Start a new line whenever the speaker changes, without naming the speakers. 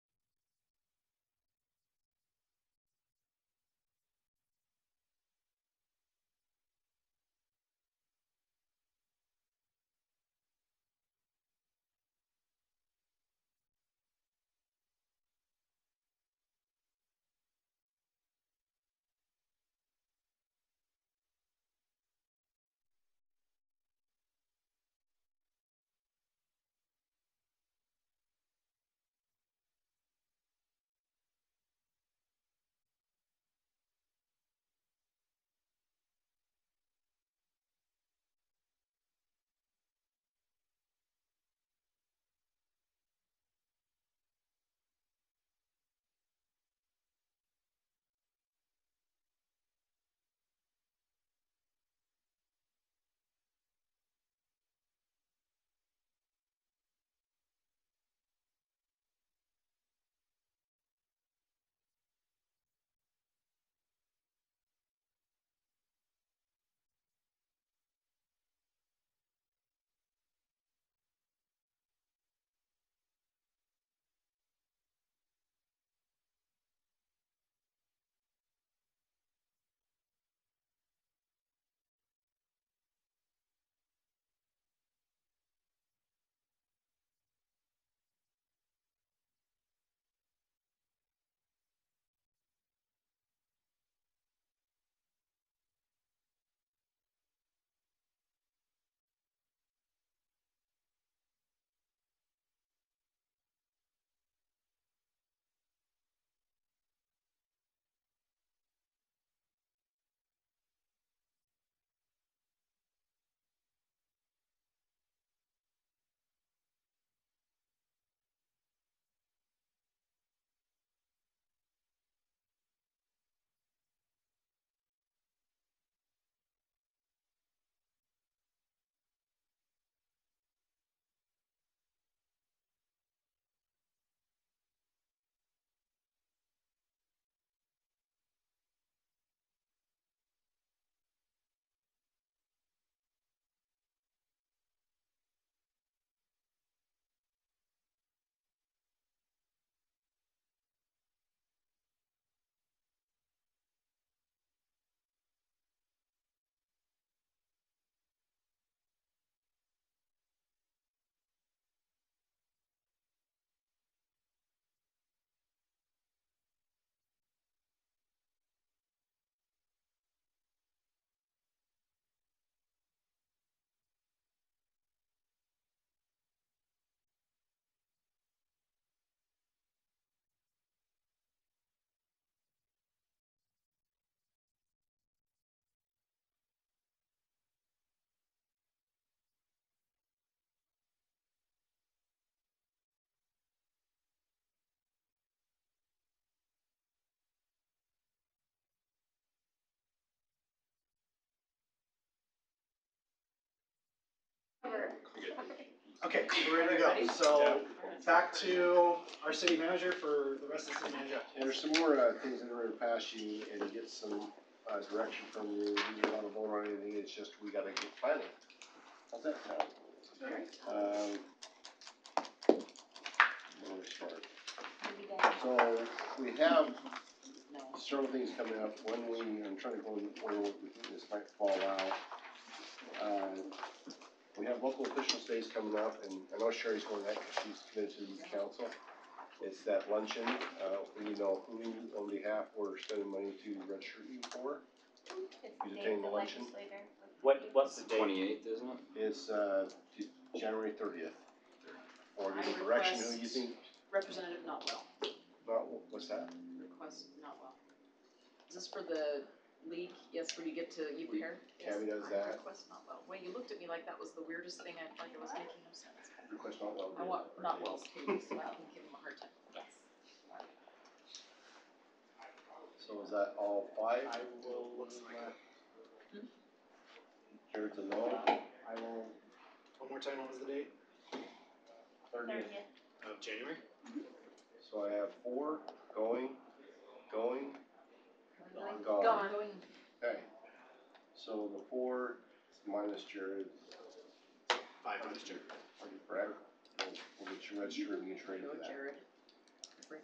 covered.
Okay, we're ready to go. So back to our city manager for the rest of the city manager.
And there's some more, uh, things that are gonna pass you and get some, uh, direction from you, you don't wanna vote on anything, it's just we gotta get planning. How's that sound? Um. Where do we start? So, we have several things coming up, one we, I'm trying to go in order, what we think this might fall out. Uh, We have local officials days coming up, and I know Sherry's going to that, because she's committed to the council. It's that luncheon, uh, you know, who on behalf we're spending money to register you for. You detain the luncheon?
What, what's the date?
Twenty-eighth, isn't it?
It's, uh, J- January thirtieth. Or give a direction, who you think,
Representative Notwell,
not, what's that?
request Notwell. Is this for the league? Yes, where you get to, you pair?
Tammy does
I
that.
Request Notwell. Wait, you looked at me like that was the weirdest thing. I like it was making no sense.
Request not well.
I want Notwell's too, so I can give him a hard time.
So is that all five?
I will, uh,
Jared's a no.
I will, one more time, what was the date?
Thirtieth.
Of January?
So I have four going, going,
Gone.
gone.
Gone.
Okay, so the four minus Jared,
Five, Mr.
correct? We'll- We'll get you registered and get you ready
Go
for that.
Jared.